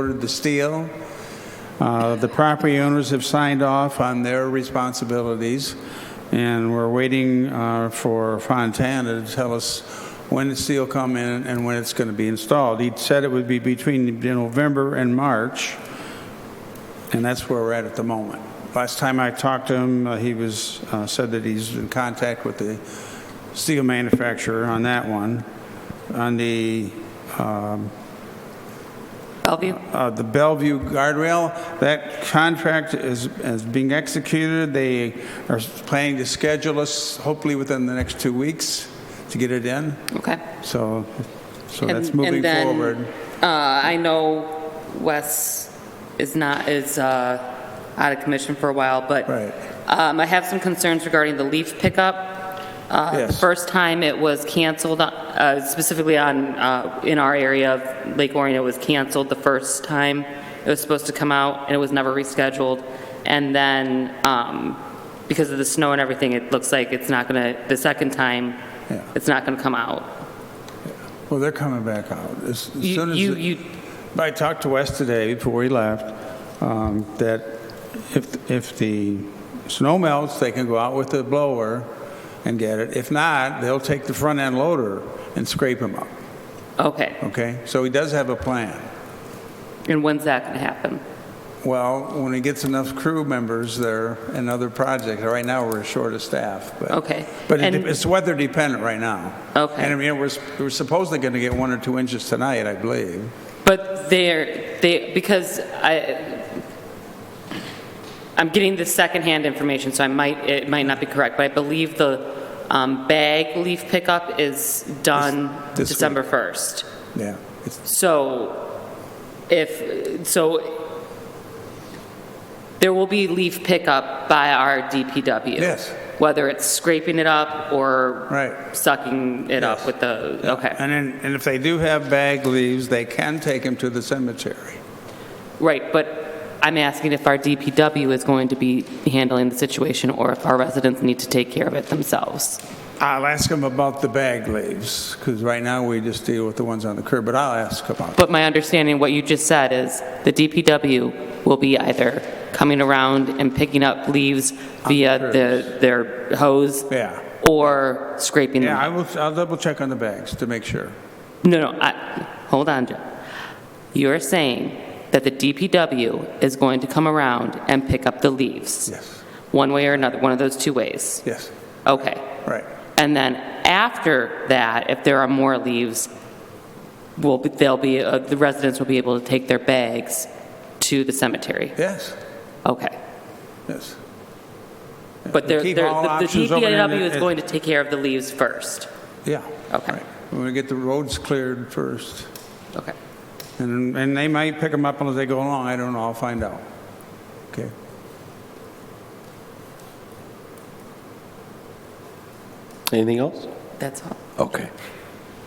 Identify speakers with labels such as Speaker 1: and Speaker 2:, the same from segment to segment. Speaker 1: ordered the steel. Uh, The property owners have signed off on their responsibilities, and we're waiting uh, for Fontana to tell us when the steel come in and when it's going to be installed. He said it would be between November and March, and that's where we're at at the moment. Last time I talked to him, uh, he was, uh, said that he's in contact with the steel manufacturer on that one. On the
Speaker 2: Bellevue?
Speaker 1: uh, the Bellevue guardrail. That contract is, is being executed. They are planning to schedule us hopefully within the next two weeks to get it in.
Speaker 2: Okay.
Speaker 1: So, so that's
Speaker 2: And-
Speaker 1: moving
Speaker 2: and then,
Speaker 1: forward.
Speaker 2: uh, I know Wes is not, is uh, out of commission for a while, but
Speaker 1: Right.
Speaker 2: um, I have some concerns regarding the leaf pickup. Uh, The
Speaker 1: Yes.
Speaker 2: first time it was canceled, uh, specifically on, uh, in our area of Lake Orion, it was canceled the first time. It was supposed to come out, and it was never rescheduled. And then, um, because of the snow and everything, it looks like it's not going to, the second time,
Speaker 1: Yeah.
Speaker 2: it's not going to come out.
Speaker 1: Well, they're coming back out. As as
Speaker 2: You-
Speaker 1: soon as,
Speaker 2: You,
Speaker 1: the-
Speaker 2: you,
Speaker 1: I talked to Wes today before he left, um, that if, if the snow melts, they can go out with the blower and get it. If not, they'll take the front end loader and scrape them up,
Speaker 2: okay.
Speaker 1: okay? So he does have a plan.
Speaker 2: And when's that going to happen?
Speaker 1: Well, when it gets enough crew members there and other projects, right now we're short of staff, but.
Speaker 2: Okay.
Speaker 1: But it-
Speaker 2: And-
Speaker 1: it's weather dependent right now.
Speaker 2: Okay.
Speaker 1: And I mean, we're, we're supposedly going to get one or two inches tonight, I believe.
Speaker 2: But they're, they, because I, I'm getting the secondhand information, so I might, it might not be correct, but I believe the um, bag leaf pickup is done
Speaker 1: This- this week.
Speaker 2: December 1st.
Speaker 1: Yeah. It's-
Speaker 2: So if, so there will be leaf pickup by our DPW.
Speaker 1: Yes.
Speaker 2: Whether it's scraping it up or
Speaker 1: Right.
Speaker 2: sucking it up
Speaker 1: Yes.
Speaker 2: with the, okay.
Speaker 1: And then, and if they do have bag leaves, they can take them to the cemetery.
Speaker 2: Right, but I'm asking if our DPW is going to be handling the situation, or if our residents need to take care of it themselves.
Speaker 1: I'll ask them about the bag leaves, because right now we just deal with the ones on the curb, but I'll ask about it.
Speaker 2: But my understanding, what you just said, is the DPW will be either coming around and picking up leaves via the, their hose,
Speaker 1: Yeah.
Speaker 2: or scraping them.
Speaker 1: Yeah, I will, I'll double check on the bags to make sure.
Speaker 2: No, no, I, hold on, Joe. You're saying that the DPW is going to come around and pick up the leaves?
Speaker 1: Yes.
Speaker 2: One way or another, one of those two ways?
Speaker 1: Yes,
Speaker 2: Okay.
Speaker 1: right.
Speaker 2: And then after that, if there are more leaves, will, be- they'll be, uh, the residents will be able to take their bags to the cemetery?
Speaker 1: Yes,
Speaker 2: Okay.
Speaker 1: yes.
Speaker 2: But they're,
Speaker 1: Keep
Speaker 2: they're-
Speaker 1: all
Speaker 2: the the
Speaker 1: options open and
Speaker 2: DPW is
Speaker 1: it-
Speaker 2: going to take care of the leaves first?
Speaker 1: Yeah.
Speaker 2: Okay.
Speaker 1: right. We're going to get the roads cleared first,
Speaker 2: Okay.
Speaker 1: and, and they might pick them up as they go along, I don't know, I'll find out. Okay.
Speaker 3: Anything else?
Speaker 2: That's all.
Speaker 3: Okay.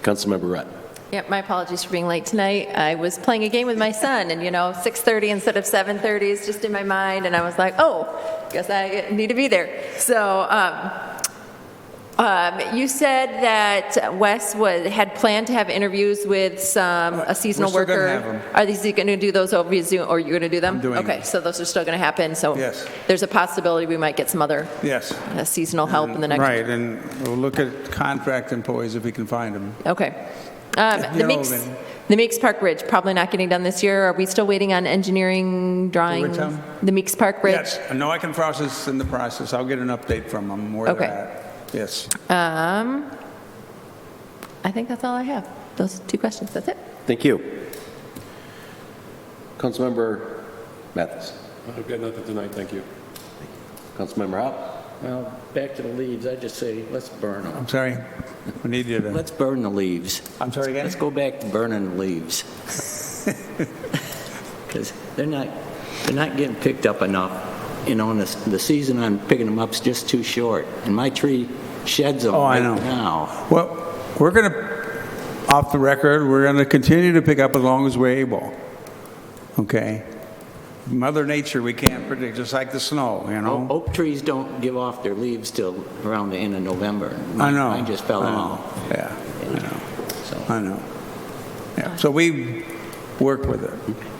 Speaker 3: Councilmember Rutt.
Speaker 4: Yep, my apologies for being late tonight. I was playing a game with my son, and you know, 6:30 instead of 7:30 is just in my mind, and I was like, oh, guess I need to be there. So um, um, you said that Wes was, had planned to have interviews with some, a seasonal
Speaker 1: we're still
Speaker 4: worker.
Speaker 1: gonna have 'em.
Speaker 4: Are these, going to do those over Zoom, or you're going to do them?
Speaker 1: I'm doing
Speaker 4: Okay,
Speaker 1: them.
Speaker 4: so those are still going to happen, so.
Speaker 1: Yes.
Speaker 4: There's a possibility we might get some other
Speaker 1: Yes.
Speaker 4: uh, seasonal help in the next.
Speaker 1: Mm-hmm. Right, and we'll look at contract employees if we can find them.
Speaker 4: Okay. Um,
Speaker 1: You're
Speaker 4: The Meeks,
Speaker 1: open.
Speaker 4: the Meeks Park Bridge, probably not getting done this year. Are we still waiting on engineering drawings?
Speaker 1: one?
Speaker 4: The Meeks Park Bridge?
Speaker 1: Yes, I know I can process in the process, I'll get an update from them where
Speaker 4: Okay.
Speaker 1: they're at. Yes.
Speaker 4: Um, I think that's all I have. Those two questions, that's it.
Speaker 3: Thank you. Councilmember Mathis.
Speaker 5: I've got nothing tonight, thank you.
Speaker 3: Councilmember Hop.
Speaker 6: Well, back to the leaves, I just say, let's burn them.
Speaker 1: I'm sorry, we need you to,
Speaker 6: Let's burn the leaves.
Speaker 1: I'm sorry again?
Speaker 6: Let's go back to burning the leaves. Because they're not, they're not getting picked up enough. You know, and the, the season on picking them up's just too short. And my tree sheds them
Speaker 1: Oh, I
Speaker 6: right
Speaker 1: know.
Speaker 6: now.
Speaker 1: Well, we're going to, off the record, we're going to continue to pick up as long as we're able, okay? Mother Nature, we can't predict, just like the snow, you
Speaker 6: O-
Speaker 1: know?
Speaker 6: Oak trees don't give off their leaves till around the end of November.
Speaker 1: I know.
Speaker 6: oh, Mine just fell
Speaker 1: I know.
Speaker 6: off,
Speaker 1: Yeah, I know,
Speaker 6: so.
Speaker 1: I know. Yeah, so we work with it.